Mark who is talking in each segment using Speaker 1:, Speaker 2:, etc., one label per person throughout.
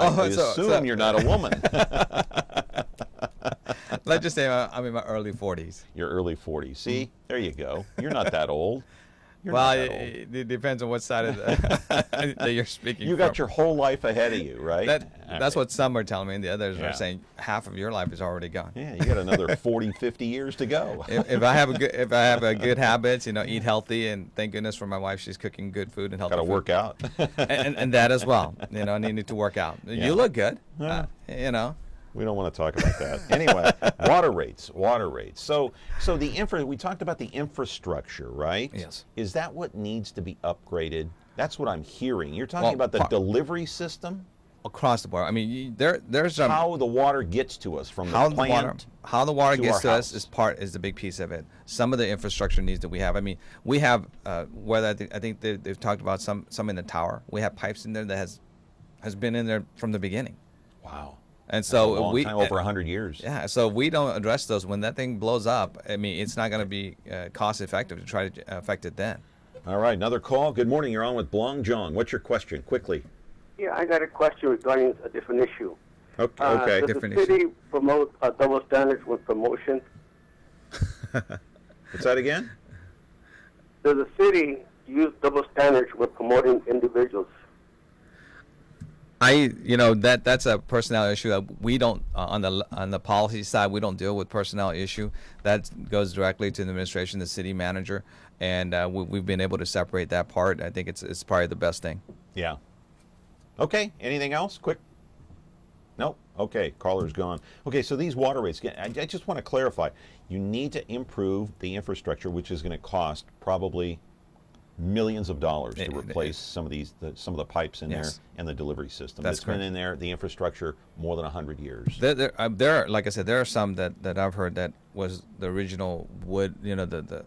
Speaker 1: I
Speaker 2: so-
Speaker 1: assume
Speaker 2: so-
Speaker 1: you're not a woman.
Speaker 2: Let's just say uh, I'm in my early 40s.
Speaker 1: you're early 40s. See, there you go. You're not that old. You're
Speaker 2: well,
Speaker 1: not that old.
Speaker 2: it, it depends on what side of the, that you're speaking.
Speaker 1: You got
Speaker 2: from.
Speaker 1: your whole life ahead of you, right?
Speaker 2: That,
Speaker 1: All
Speaker 2: that's
Speaker 1: right.
Speaker 2: what some are telling me, and the others
Speaker 1: Yeah.
Speaker 2: are saying half of your life is already gone.
Speaker 1: Yeah, you got another 40, 50 years to go.
Speaker 2: if, if I have a good, if I have a good habits, you know, eat healthy, and thank goodness for my wife, she's cooking good food and healthy.
Speaker 1: got to
Speaker 2: food.
Speaker 1: work out.
Speaker 2: and, and, and that as well. You know, and you need to work out.
Speaker 1: Yeah.
Speaker 2: You look good.
Speaker 1: Yeah.
Speaker 2: Uh, you know,
Speaker 1: We don't want to talk about that. Anyway, water rates, water rates. So, so the infra. We talked about the infrastructure, right?
Speaker 2: Yes.
Speaker 1: Is that what needs to be upgraded? That's what I'm hearing. You're talking
Speaker 2: Well,
Speaker 1: about the
Speaker 2: par-
Speaker 1: delivery system,
Speaker 2: across the board. I mean, you, there there's some
Speaker 1: how the water gets to us from
Speaker 2: how
Speaker 1: the
Speaker 2: the
Speaker 1: plant.
Speaker 2: water how the water
Speaker 1: to
Speaker 2: gets
Speaker 1: our
Speaker 2: to
Speaker 1: house.
Speaker 2: us is part is the big piece of it. Some of the infrastructure needs that we have. I mean, we have uh, whether I think, I think they, they've talked about some some in the tower. We have pipes in there that has has been in there from the beginning,
Speaker 1: Wow.
Speaker 2: and
Speaker 1: A
Speaker 2: so
Speaker 1: long
Speaker 2: Oh, we
Speaker 1: time, over 100 years.
Speaker 2: Yeah, so if we don't address those when that thing blows up. I mean, it's not going to be uh, cost effective to try to uh, affect it then.
Speaker 1: All right, another call. Good morning. You're on with Blong Jong. What's your question? Quickly.
Speaker 3: Yeah, I got a question regarding a different issue.
Speaker 1: Okay.
Speaker 3: Uh,
Speaker 1: okay.
Speaker 3: does
Speaker 2: different
Speaker 3: the
Speaker 2: issue.
Speaker 3: city promote uh, double standards with promotion?
Speaker 1: What's that again?
Speaker 3: Does the city use double standards with promoting individuals?
Speaker 2: I, you know, that that's a personnel issue that we don't uh, on the on the policy side we don't deal with personnel issue. That goes directly to the administration, the city manager, and uh, we, we've been able to separate that part. I think it's it's probably the best thing.
Speaker 1: Yeah. Okay. Anything else? Quick. Nope. Okay. Caller's gone. Okay. So these water rates. I, I just want to clarify. You need to improve the infrastructure, which is going to cost probably millions of dollars to
Speaker 2: It- it-
Speaker 1: replace some of these, the, some of the pipes in
Speaker 2: Eh, Yes.
Speaker 1: there and the delivery system
Speaker 2: That's
Speaker 1: has been
Speaker 2: correct.
Speaker 1: in there, the infrastructure, more than hundred years.
Speaker 2: There, there, uh, there, are, like I said, there are some that, that I've heard that was the original wood, you know, the, the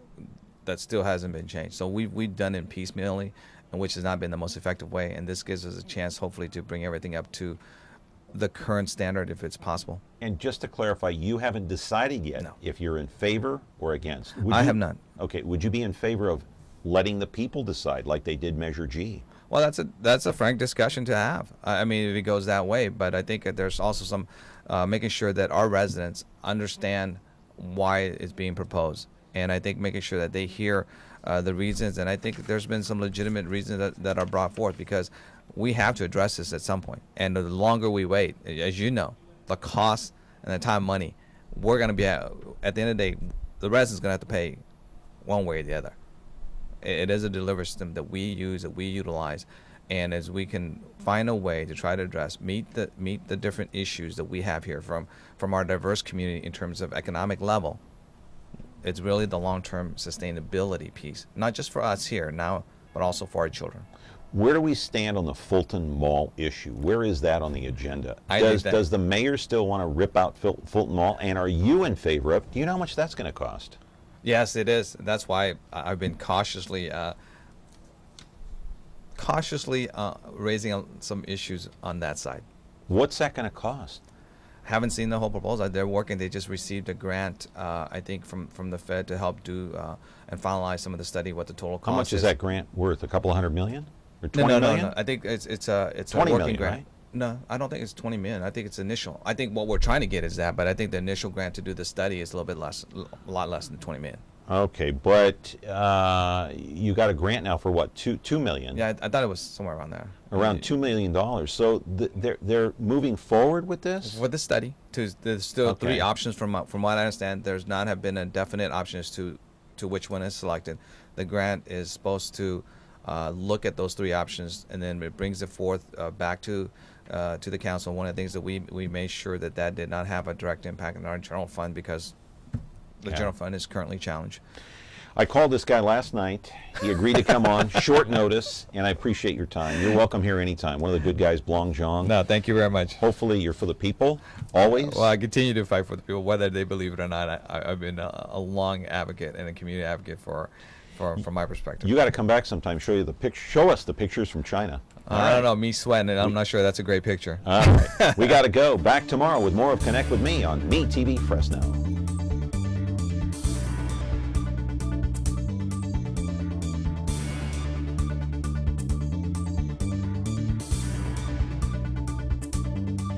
Speaker 2: that still hasn't been changed. So we've we've done it piecemeally, and which has not been the most effective way. And this gives us a chance, hopefully, to bring everything up to the current standard if it's possible.
Speaker 1: And just to clarify, you haven't decided yet
Speaker 2: No.
Speaker 1: if you're in favor or against. Would
Speaker 2: I
Speaker 1: you-
Speaker 2: have not.
Speaker 1: Okay, would you be in favor of letting the people decide like they did Measure G?
Speaker 2: Well, that's a that's a frank discussion to have. I I mean, if it goes that way, but I think that there's also some uh, making sure that our residents understand why it's being proposed, and I think making sure that they hear uh, the reasons. And I think there's been some legitimate reasons that, that are brought forth because we have to address this at some point. And the longer we wait, as you know, the cost and the time, money, we're going to be at, at the end of the day, the residents going to have to pay one way or the other it it is a delivery system that we use that we utilize and as we can find a way to try to address meet the meet the different issues that we have here from from our diverse community in terms of economic level it's really the long-term sustainability piece not just for us here now but also for our children
Speaker 1: Where do we stand on the Fulton Mall issue? Where is that on the agenda?
Speaker 2: I think
Speaker 1: does,
Speaker 2: that-
Speaker 1: does the mayor still want to rip out Ful- Fulton Mall? And are you in favor of? Do you know how much that's going to cost?
Speaker 2: Yes, it is. That's why I- I've been cautiously, uh, cautiously uh, raising uh, some issues on that side.
Speaker 1: What's that going to cost?
Speaker 2: Haven't seen the whole proposal. They're working. They just received a grant, uh, I think, from, from the Fed to help do uh, and finalize some of the study. What the total cost
Speaker 1: How much is that grant worth? A couple of hundred million? Or
Speaker 2: No,
Speaker 1: twenty
Speaker 2: no,
Speaker 1: million?
Speaker 2: no, no. I think it's it's a it's a
Speaker 1: 20
Speaker 2: working
Speaker 1: million,
Speaker 2: grant.
Speaker 1: right?
Speaker 2: No, I don't think it's twenty million. I think it's initial. I think what we're trying to get is that, but I think the initial grant to do the study is a little bit less, a lot less than twenty million.
Speaker 1: Okay, but uh, you got a grant now for what? Two two million.
Speaker 2: Yeah, I, I thought it was somewhere around there.
Speaker 1: around two million dollars. So th- they're they're moving forward with this.
Speaker 2: for the study to there's still
Speaker 1: Okay.
Speaker 2: three options from my- from what I understand there's not have been a definite option as to to which one is selected the grant is supposed to uh, look at those three options and then it brings it forth uh, back to uh, to the council one of the things that we we made sure that that did not have a direct impact on our general fund because the
Speaker 1: Yeah.
Speaker 2: general fund is currently challenged
Speaker 1: I called this guy last night. He agreed to come on short notice, and I appreciate your time. You're welcome here anytime. One of the good guys, Blong Jong.
Speaker 2: no thank you very much
Speaker 1: Hopefully, you're for the people always.
Speaker 2: well I continue to fight for the people whether they believe it or not I- I, I've been a, a long advocate and a community advocate for for from my perspective
Speaker 1: you got to come back sometime. Show you the pic- Show us the pictures from China.
Speaker 2: I don't know, me sweating it. I'm not sure that's a great picture.
Speaker 1: All right, we got to go. Back tomorrow with more of Connect with Me on Me TV Fresno.